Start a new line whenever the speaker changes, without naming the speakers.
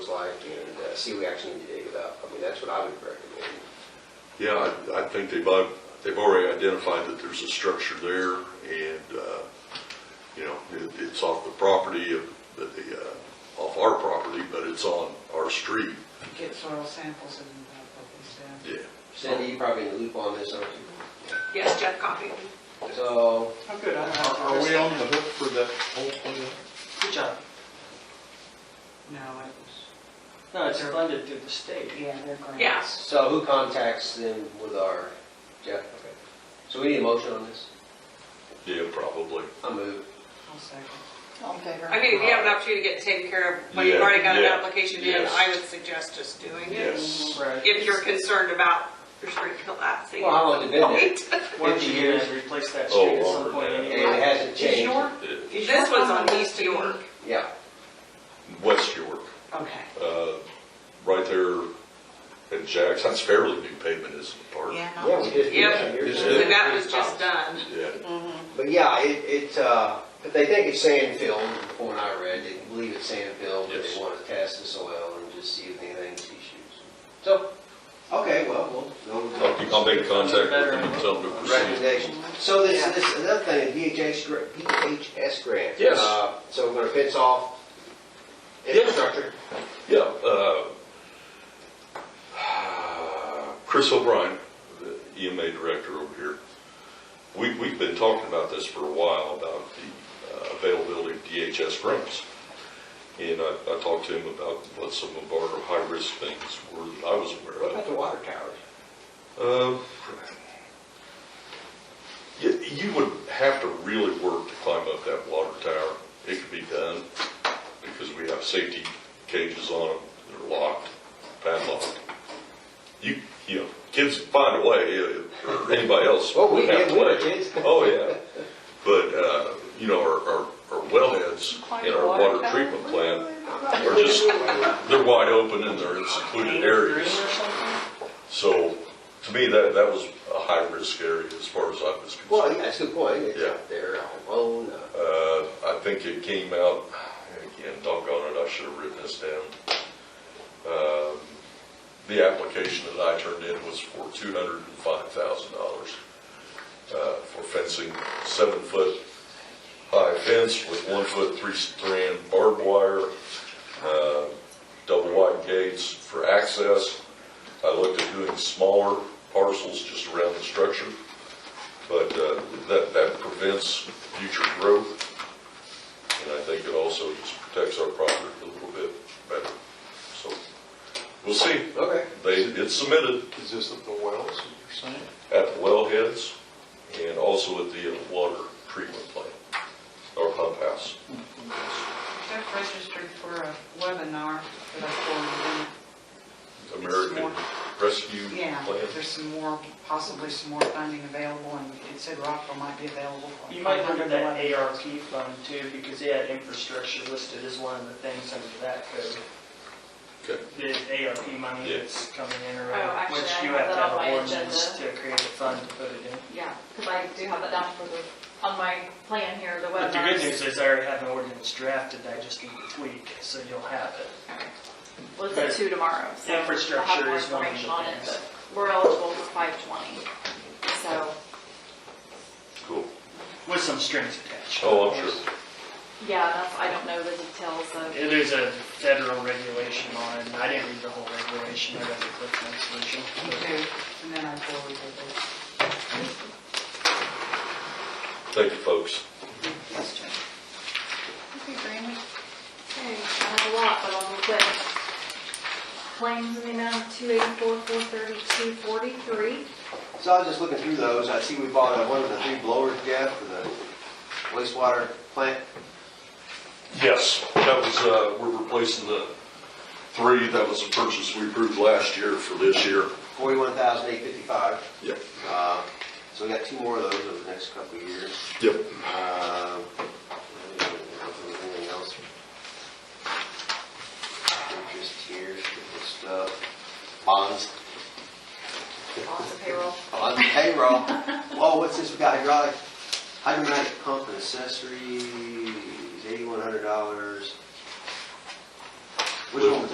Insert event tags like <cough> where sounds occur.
like and uh, see what we actually need to dig it up. I mean, that's what I would recommend.
Yeah, I, I think they've, al- they've already identified that there's a structure there and, uh, you know, it, it's off the property of, the, the, uh, off our property, but it's on our street.
Get soil samples and uh, what they said.
Yeah.
Cindy, you probably in the loop on this, aren't you?
Yes, Jeff copied me.
So,
How good, I don't have to
Are are we
understand.
on the hook for that whole thing?
Good job.
No, it was,
No, it's funded through the state.
yeah, they're grants.
Yeah.
so who contacts them with our, Jeff? Okay. So we need a motion on this?
Yeah, probably.
I move.
I'll second.
All in favor?
I mean, if you have an opportunity to get it taken care of, but you've
Yeah,
already got an
yeah,
application in,
yes.
I would suggest just doing it.
Yes.
Right.
If you're concerned about your street collapsing.
Well, how long has it been there?
Why don't
50
you
years.
guys replace that
Oh,
street at
longer
some point
than that.
And
anyway?
it hasn't
Is
changed.
your,
Yeah.
is your
<laughs> This one's
home
on East York.
Yeah,
West York,
Okay.
uh, right there at Jack's, that's fairly new pavement, isn't it, Park?
yeah, we just did some
Yep.
years
Is
ago.
it-
And that was just done.
Yeah.
But yeah, it, it, uh, but they think it's sand film, from what I read, they believe it's sand film, but
Yes.
they want to test the soil and just see if anything's issues. So, okay, well, we'll. we'll-
I'll, I'll make contact with them and tell them to proceed.
Recommendation. So this, this, another thing, DHS, gra- DHS grant.
Yes.
Uh, So we're gonna fence off infrastructure.
Yeah, uh, Chris O'Brien, the EMA director over here, we, we've been talking about this for a while, about the uh, availability of DHS grants. And I, I talked to him about what some of our high-risk things were that I was aware
What
of.
about the water towers?
Um, You, you would have to really work to climb up that water tower. It could be done because we have safety cages on them. They're locked, padlocked. You, you know, kids find a way, uh, or anybody else.
Well, we
would have
did,
a
we were
way.
kids.
Oh, yeah. But, uh, you know, our, our, our wellheads in our water treatment plant are just, they're wide open and they're in secluded
Green or
areas.
something?
So, to me, that, that was a high-risk area as far as I was
Well,
concerned.
yeah, that's a good point. It's
Yeah.
out there on loan. uh,
Uh, I think it came out, again, doggone it, I should have written this down. Um, The application that I turned in was for two hundred and five thousand dollars uh, for fencing, seven-foot high fence with one-foot, three-strand barbed wire, uh, double-wide gates for access. I looked at doing smaller parcels just around the structure but uh, that, that prevents future growth, and I think it also just protects our property a little bit better. So, we'll see.
Okay.
They, it's submitted
Is this at the wells that you're saying?
at the wellheads and also at the water treatment plant, or pump house.
Jeff registered for a webinar that I forwarded
American Rescue
him. Yeah,
Plan.
there's some more, possibly some more funding available, and it said Rockville might be available. for
You might look at that
111.
ARP fund too, because they had infrastructure listed as one of the things under that code.
Okay.
The ARP money
Yeah.
that's coming in
Oh,
around,
actually,
which
I
you
have
have to
that
have
on my
an ordinance to
agenda.
create a fund to put it in.
Yeah, because I do have that down for the, on my plan here, the
But the
webinars.
good news is I already have an ordinance drafted, I just need to tweak, so you'll have it.
Well, it's at two tomorrow, so.
Infrastructure
I'll have more
is one of the
information on it,
things.
but We're eligible for five twenty, so,
Cool.
With some strings attached.
Oh, I'm sure.
yeah, that's, I don't know the details of,
There's a federal regulation on it, and I didn't read the whole regulation, I read the quick translation.
Okay, and then I forwarded it.
Thank you, folks.
okay, Granny. Okay, I have a lot, but I'll be quick. Claims in the amount of two eighty-four, four thirty-two, forty-three.
So I was just looking through those, I see we bought uh, one of the three blowers, Jeff, for the wastewater plant.
Yes, that was, uh, we're replacing the three, that was a purchase we approved last year for this year.
Forty-one thousand eight fifty-five.
Yep.
Uh, So we got two more of those over the next couple of years.
Yep.
Uh, Anything else? Interest here, stupid stuff. Bonds,
Lots of payroll.
bonds, payroll. Whoa, what's this? We got hydraulic, hydromatic pump and accessories, eighty-one hundred dollars. Which one was